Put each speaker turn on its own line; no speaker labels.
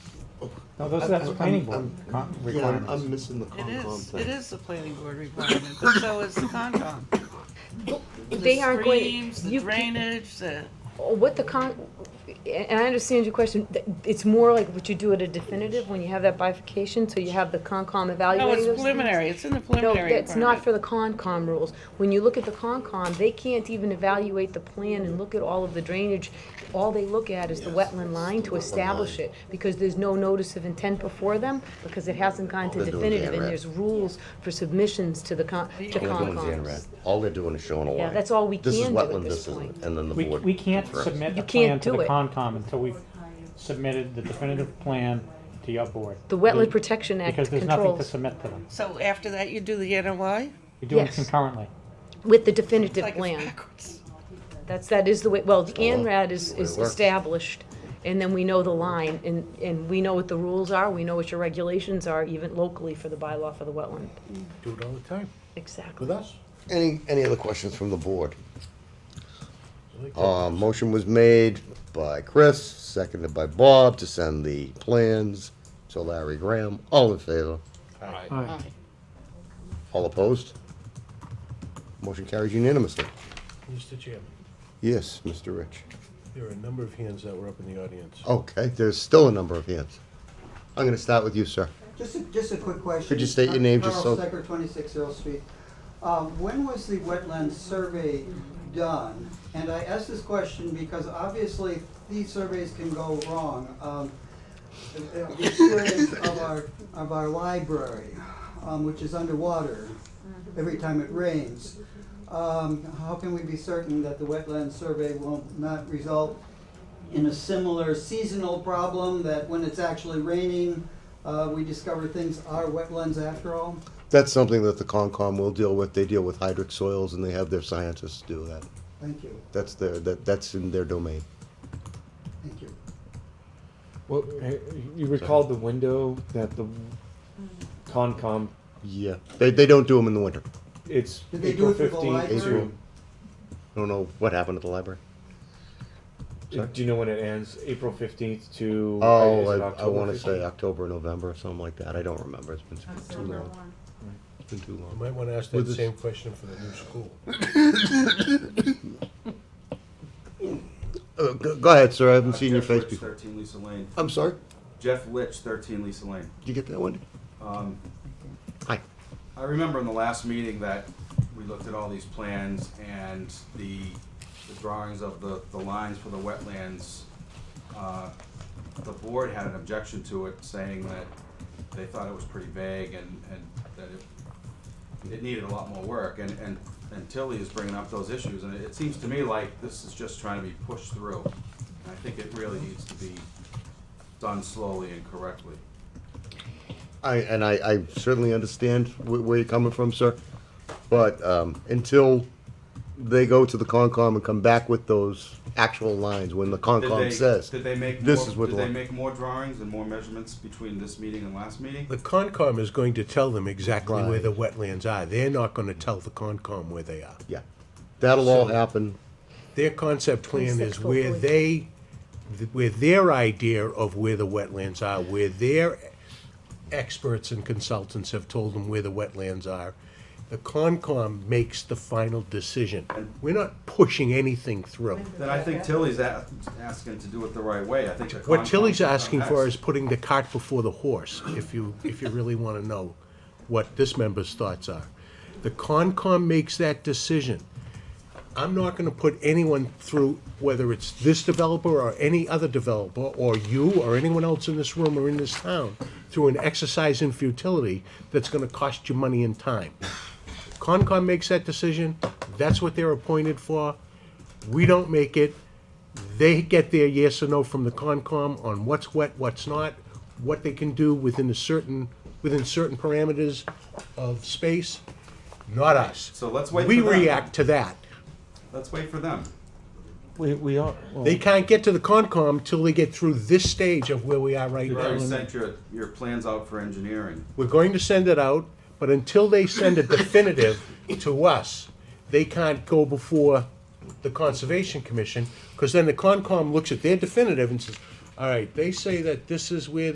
No, those, that's planning board con-
Yeah, I'm
requirements.
missing the
It
Concom
is,
thing.
it is the planning board requirement, but so is the Concom.
They aren't
The
going,
streams, the
you, can-
drainage, the,
oh, what the con, and I understand your question, th- it's more like what you do at a definitive, when you have that bifurcation, so you have the Concom
no,
evaluating
it's
those things.
preliminary, it's in the
No,
preliminary
that's not for
requirement.
the Concom rules. When you look at the Concom, they can't even evaluate the plan and look at all of the drainage. All they look at is the wetland line to establish it, because there's no notice of intent before them, because it hasn't gone to
They're doing
definitive, and
Xanrad.
there's rules for submissions to the con, to
All they're doing is
Concom.
Xanrad. All they're doing is showing a line.
Yeah, that's all we
This is
can do at
wetland,
this
this isn't,
point.
And then the
We,
board.
we can't
confirms.
submit a
You
plan
can't
to the
do it.
Concom until we've submitted the definitive plan to your board.
The Wetland Protection Act
Because there's nothing to
controls
submit to them.
So after that, you do the NOI?
We do it
Yes.
concurrently.
with the
It's
definitive
like it's
plan.
backwards.
That's, that is the way, well, the
well,
ANRAD is, is
it works.
established, and then we know the line, and, and we know what the rules are, we know what your regulations are, even locally for the bylaw for the wetland.
Do it all the time
Exactly.
with us.
Any, any other questions from the board? Uh, motion was made by Chris, seconded by Bob to send the plans to Larry Graham. All in favor? All opposed? Motion carries unanimously.
Mr. Chairman,
Yes, Mr. Rich.
there are a number of hands that were up in the audience.
Okay, there's still a number of hands. I'm gonna start with you, sir.
Just a, just a quick question.
Could you state your name just so-
Carl Stecker, 26 Earl Street. Um, When was the wetland survey done? And I ask this question because obviously these surveys can go wrong. Um, the- The experience of our, of our library, um, which is underwater every time it rains. Um, How can we be certain that the wetland survey will not result in a similar seasonal problem that when it's actually raining, uh, we discover things are wetlands after all.
That's something that the Concom will deal with. They deal with hydric soils and they have their scientists do that.
Thank you,
That's their, that, that's in their domain.
thank you.
Well, eh, you recall the window that the Concom,
Yeah. They, they don't do them in the winter.
it's
Did they do
April
it for the
fifteenth
library?
to,
April. I don't know what happened at the library. Sorry?
do you know when it ends? April fifteenth to,
Oh,
is it
I, I
October
wanna say
15th?
October, November, or something like that. I don't remember. It's been too- too long. It's been too
You
long.
might wanna ask
With
that
this-
same question for the new school.
Uh, go, go ahead, sir. I haven't
Uh,
seen your
Jeff
face
Litch,
before.
Thirteen Lisa Lane.
I'm sorry.
Jeff Litch, thirteen Lisa Lane.
Did you get that one?
Um,
Hi.
I remember in the last meeting that we looked at all these plans and the, the drawings of the, the lines for the wetlands. Uh, The board had an objection to it, saying that they thought it was pretty vague and, and that it, it needed a lot more work. And, and, and Tilly is bringing up those issues, and it seems to me like this is just trying to be pushed through. And I think it really needs to be done slowly and correctly.
I, and I, I certainly understand where, where you're coming from, sir. But um, until they go to the Concom and come back with those actual lines, when the
Did
Concom
they-
says,
Did they make
this
more,
is what
did
the
they
line-
make more drawings and more measurements between this meeting and last meeting?
The Concom is going to tell them exactly where
Right.
the wetlands are. They're not gonna tell the Concom where they are.
yeah, that'll all
So-
happen.
Their concept plan is
26
where
hopefully.
they, th- where their idea of where the wetlands are, where their experts and consultants have told them where the wetlands are. The Concom makes the final decision. We're not pushing anything through.
Then I think Tilly's a- asking to do it the right way, I think. the
What
Concom
Tilly's
should come
asking for
next.
is putting the cart before the horse, if you, if you really want to know what this member's thoughts are. The Concom makes that decision. I'm not going to put anyone through, whether it's this developer or any other developer, or you or anyone else in this room or in this town, through an exercise in futility that's going to cost you money and time. Concom makes that decision, that's what they're appointed for. We don't make it. They get their yes or no from the Concom on what's wet, what's not, what they can do within a certain, within certain parameters of space, not us.
So let's wait
We
for them.
react to that.
Let's wait for them.
We, we are, well,
They can't get to the Concom till they get through this stage of where we are right
You already
now.
sent your, your plans out for engineering.
We're going to send it out, but until they send a definitive to us, they can't go before the Conservation Commission, because then the Concom looks at their definitive and says, all right, they say that this is where